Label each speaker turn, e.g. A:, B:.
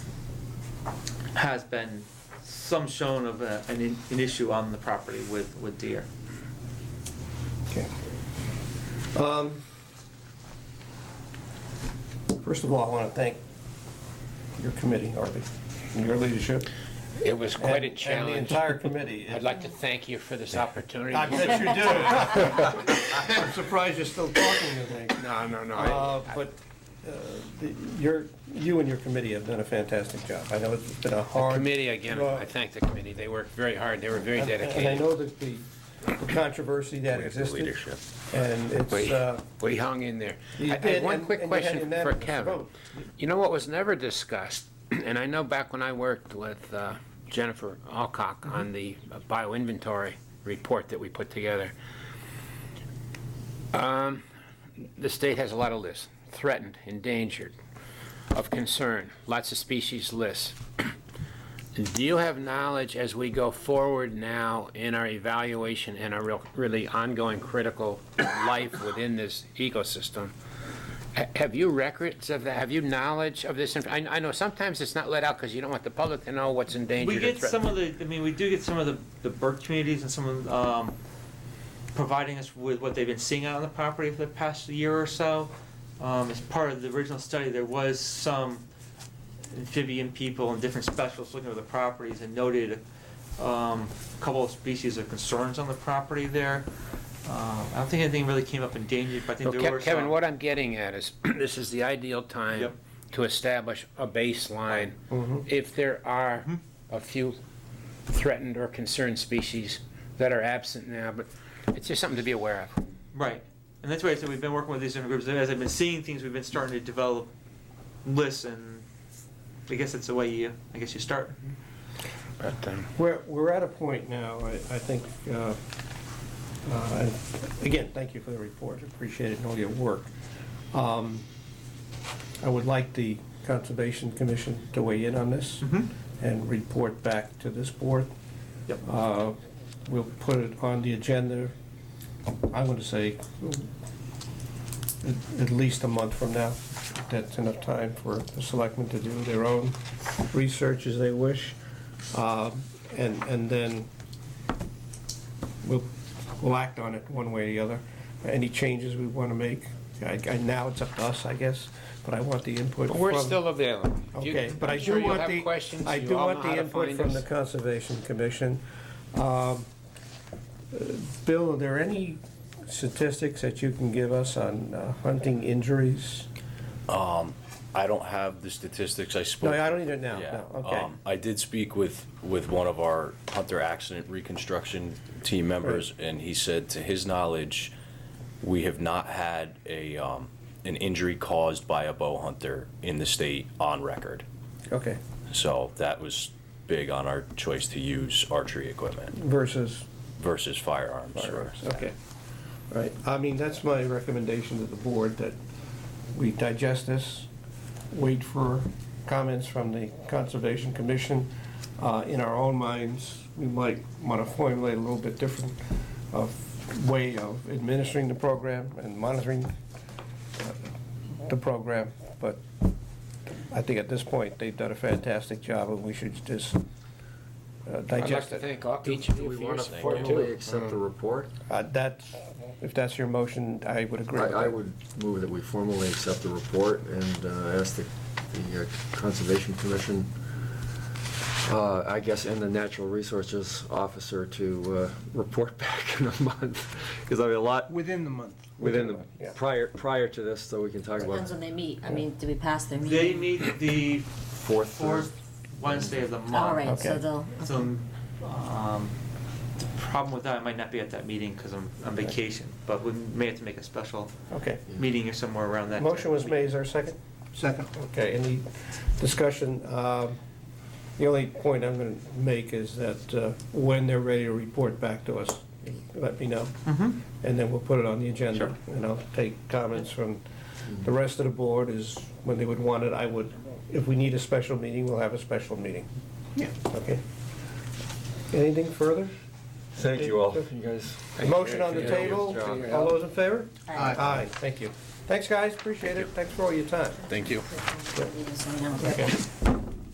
A: has been some shown of a- an, i- an issue on the property with, with deer.
B: Okay. Um, First of all, I want to thank your committee, Arby, and your leadership.
C: It was quite a
B: and- And the
C: challenge.
B: entire committee.
C: I'd like to thank you for this opportunity.
B: I bet you do. I'm surprised you're still talking to me.
C: No, no, no. I-
B: Uh, But uh, the- your, you and your committee have done a fantastic job. I know it's been a hard.
C: Committee, again,
B: Well,
C: I thank the committee. They worked very hard. They were very
B: and- And I
C: dedicated.
B: know that the the controversy that
C: With the
B: existed,
C: leadership.
B: and it's,
C: We
B: uh,
C: we hung in there. I-
B: You
C: I
B: did,
C: have one
B: and-
C: quick
B: and you had
C: question for
B: unanimous
C: Kevin.
B: vote.
C: You know what was never discussed, and I know back when I worked with uh, Jennifer Alcock on the bioinventory report that we put together, um, the state has a lot of lists, threatened, endangered, of concern, lots of species lists. Do you have knowledge as we go forward now in our evaluation and our real, really ongoing critical life within this ecosystem? Ha- Have you records of that? Have you knowledge of this? inf- I, I know sometimes it's not let out because you don't want the public to know what's endangered.
A: We
C: or
A: get some
C: threatened.
A: of the, I mean, we do get some of the, the bird communities and some of, um, providing us with what they've been seeing out on the property for the past year or so. Um, as part of the original study, there was some amphibian people and different specialists looking at the properties and noted, um, a couple of species of concerns on the property there. Um, I don't think anything really came up endangered, but I think
C: Well,
A: there
C: Ke-
A: were some.
C: Kevin, what I'm getting at is, this is the ideal time
A: uh, Yep.
C: to establish a baseline.
B: Mhm.
C: If there are
A: Mhm.
C: a few threatened or concerned species that are absent now, but it's just something to be aware of.
A: Right, and that's why I said we've been working with these different groups, as I've been seeing things, we've been starting to develop lists, and I guess that's the way you, I guess you start.
C: But, um,
B: We're, we're at a point now, I, I think, uh, uh, and again, thank you for the report, appreciate it and all your work. Um, I would like the Conservation Commission to weigh in on this
A: Mhm.
C: Mm-hmm.
B: and report back to this board.
A: Yep.
B: Uh, We'll put it on the agenda, I'm going to say, at- at least a month from now. That's enough time for the selectmen to do their own research as they wish. Um, And, and then we'll, we'll act on it one way or the other. Any changes we want to make, I, I- now it's up to us, I guess, but I want the input
C: but
B: from.
C: We're still available. You-
B: Okay, but I
C: I'm sure
B: do
C: you'll
B: want
C: have
B: the,
C: questions.
B: I
C: You
B: do
C: all know
B: want the
C: how to
B: input
C: find
B: from
C: us.
B: the Conservation Commission. Um, uh, Bill, are there any statistics that you can give us on uh, hunting injuries?
D: I don't have the statistics I spoke.
B: No, I don't either now,
D: Yeah,
B: no, okay.
D: um, I did speak with, with one of our Hunter accident reconstruction team members, and he said, to his knowledge, we have not had a, um, an injury caused by a bow hunter in the state on record.
B: Okay,
D: So that was big on our choice to use archery equipment
B: versus
D: versus firearms.
B: firearms, okay. All right, I mean, that's my recommendation to the board, that we digest this, wait for comments from the Conservation Commission. Uh, In our own minds, we might want to formulate a little bit different of way of administering the program and monitoring uh, the program, but I think at this point, they've done a fantastic job, and we should just uh,
C: I'd like
B: digest
C: to
B: it.
C: thank all- each of you for your support
E: Formally
C: too.
E: accept the report?
B: Uh, That's, if that's your motion, I would
E: I,
B: agree. with
E: I
B: that.
E: would move that we formally accept the report and uh, ask the, the uh, Conservation Commission, uh, I guess, and the Natural Resources Officer to, uh, report back in a month. Because I mean, a lot
F: Within the month.
E: within
B: Yeah.
E: the, prior, prior to this, so we can talk about
G: Depends when they meet, I mean, do we pass their meeting?
A: They meet the
E: fourth.
A: fourth Wednesday of the month.
G: All right, so
B: Okay.
G: they'll,
A: So, um, the problem with that, I might not be at that meeting because I'm on vacation, but we may have to make a special
B: Okay.
A: meeting or somewhere around that.
B: Motion was made, is there a second?
F: Second.
B: Okay, any discussion? Um, The only point I'm going to make is that uh, when they're ready to report back to us, let me know,
A: Mm-hmm,
B: and then we'll put it on the agenda.
A: Sure.
B: And I'll take comments from the rest of the board is when they would want it, I would, if we need a special meeting, we'll have a special meeting.
F: Yeah.
B: Okay? Anything further?
E: Thank you all. You guys.
B: Motion on the
C: Yeah.
B: table?
E: Yeah.
B: All those in favor?
G: Aye.
B: Aye, thank you. Thanks, guys, appreciate it. Thanks for all your time.
D: Thank you.
G: meet us, you know.
B: Okay.